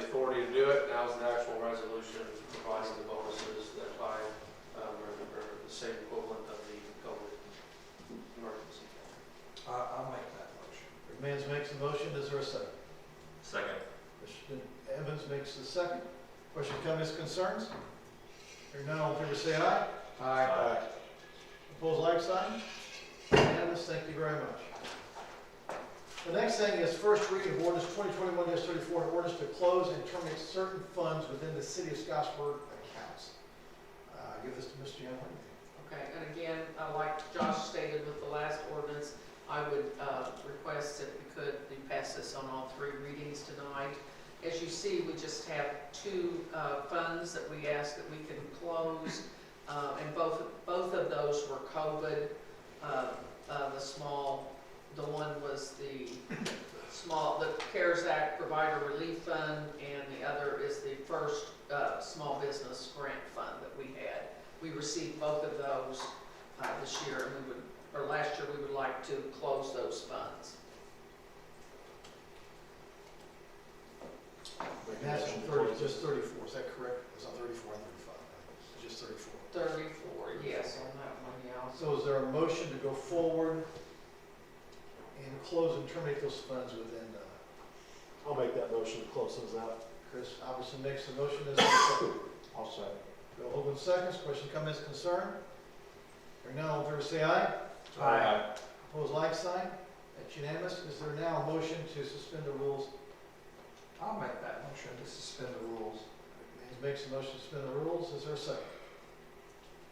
do it, now is the actual resolution providing the bonuses that by, um, are, are the same equivalent of the COVID emergency. I, I'll make that motion. Mans makes a motion, is there a second? Second. Mr. Evans makes the second. Question, comments, concerns? Hearing none, all in favor say aye. Aye. Opposed, like sign? Unanimous, thank you very much. The next thing is first reading of ordinance twenty twenty-one thirty-four, an ordinance to close and terminate certain funds within the city of Scottsburg accounts. Uh, I give this to Mr. Young. Okay, and again, uh, like Josh stated with the last ordinance, I would uh, request if we could, we pass this on all three readings tonight. As you see, we just have two uh, funds that we ask that we can close, uh, and both, both of those were COVID. uh, uh, The small, the one was the small, the CARES Act Provider Relief Fund, and the other is the first uh, small business grant fund that we had. We received both of those uh, this year, and we would, or last year, we would like to close those funds. That's on thirty, just thirty-four, is that correct? It's on thirty-four and thirty-five, right? It's just thirty-four. Thirty-four, yes, on that one, yeah. So is there a motion to go forward and close and terminate those funds within, uh, I'll make that motion to close those out. Chris Albertson makes the motion, is there a second? I'll second. Bill Hoagland seconds, question, comments, concern? Hearing none, all in favor say aye. Opposed, like sign. That's unanimous. Is there now a motion to suspend the rules? I'll make that motion to suspend the rules. Haynes makes the motion to suspend the rules, is there a second?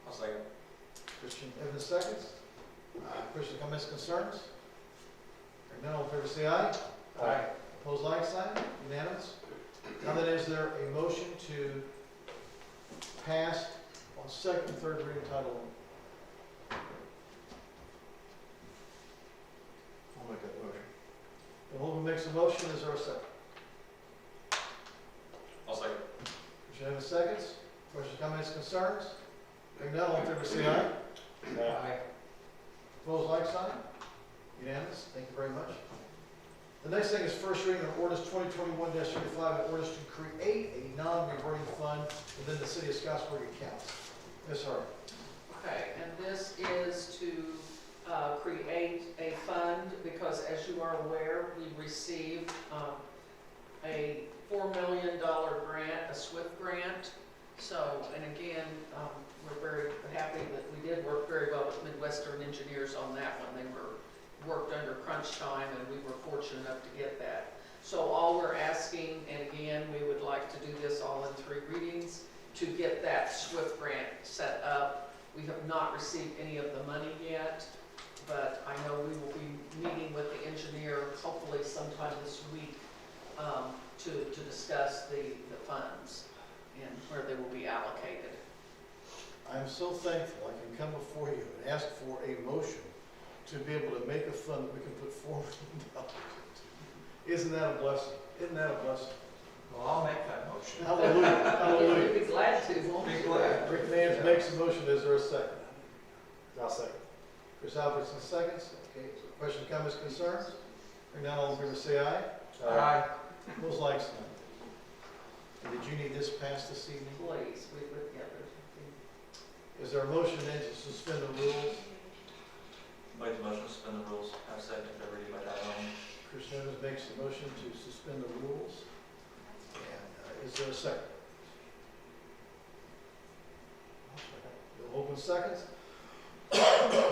I'll second. Christian Evans seconds. Uh, Christian, comments, concerns? Hearing none, all in favor say aye. Aye. Opposed, like sign, unanimous. Now then, is there a motion to pass on second and third reading title? I'll make that motion. Bill Holman makes a motion, is there a second? I'll second. Christian Evans seconds. Questions, comments, concerns? Hearing none, all in favor say aye. Aye. Opposed, like sign? Unanimous, thank you very much. The next thing is first reading of ordinance twenty twenty-one thirty-five, an ordinance to create a non-reverting fund within the city of Scottsburg accounts. Ms. Harvey. Okay, and this is to uh, create a fund, because as you are aware, we received um, a four million dollar grant, a SWIFT grant. So, and again, um, we're very happy that we did work very well with Midwestern Engineers on that one. They were, worked under crunch time, and we were fortunate enough to get that. So all we're asking, and again, we would like to do this all in three readings, to get that SWIFT grant set up we have not received any of the money yet, but I know we will be meeting with the engineer hopefully sometime this week um, to, to discuss the, the funds and where they will be allocated. I am so thankful I can come before you and ask for a motion to be able to make a fund that we can put four million dollars into. Isn't that a blessing? Isn't that a blessing? Well, I'll make that motion. Hallelujah, hallelujah. We'd be glad to, won't we? Be glad. Rick Mans makes a motion, is there a second? I'll second. Chris Albertson seconds. Okay, so question, comments, concerns? Hearing none, all in favor say aye. Aye. Opposed, like sign. And did you need this passed this evening? Please, we would, yeah, there's Is there a motion then to suspend the rules? Make the motion to suspend the rules. Have second if they're reading by title only. Chris Evans makes the motion to suspend the rules. And uh, is there a second? Bill Holman seconds.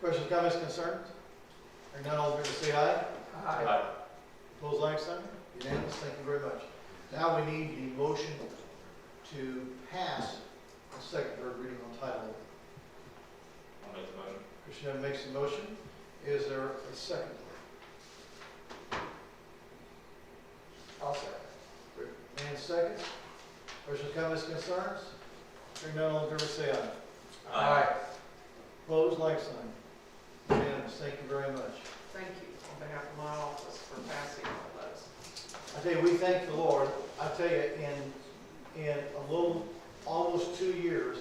Questions, comments, concerns? Hearing none, all in favor say aye. Aye. Opposed, like sign? Unanimous, thank you very much. Now we need the motion to pass the second, third reading on title only. I'll make the motion. Commissioner Evans makes the motion. Is there a second? I'll second. And seconds. Questions, comments, concerns? Hearing none, all in favor say aye. Aye. Opposed, like sign. Unanimous, thank you very much. thank you on behalf of my office for passing all those. I tell you, we thank the Lord. I tell you, in, in a little, almost two years,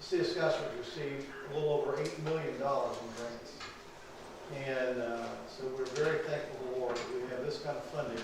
the city of Scottsburg received a little over eight million dollars in grants. And, uh, so we're very thankful to the Lord that we have this kind of funding